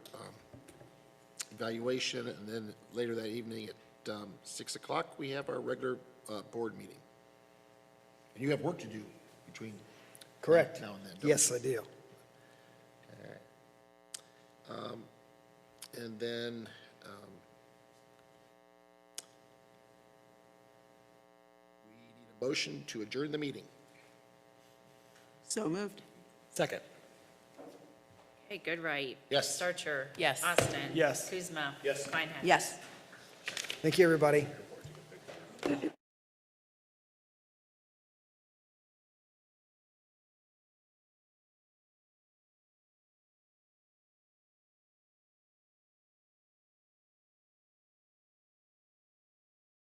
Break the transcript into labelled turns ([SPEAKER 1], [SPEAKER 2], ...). [SPEAKER 1] valuation, and then later that evening at um, 6 o'clock, we have our regular uh, board meeting. And you have work to do between
[SPEAKER 2] Correct.
[SPEAKER 1] now and then, don't you?
[SPEAKER 2] Yes, I do.
[SPEAKER 1] And then, um, we need a motion to adjourn the meeting.
[SPEAKER 3] So moved.
[SPEAKER 2] Second.
[SPEAKER 4] Hey, Goodright.
[SPEAKER 1] Yes.
[SPEAKER 4] Starcher.
[SPEAKER 3] Yes.
[SPEAKER 4] Austin.
[SPEAKER 2] Yes.
[SPEAKER 4] Kuzma. Yes. Reinhardt.
[SPEAKER 3] Yes.
[SPEAKER 2] Thank you, everybody.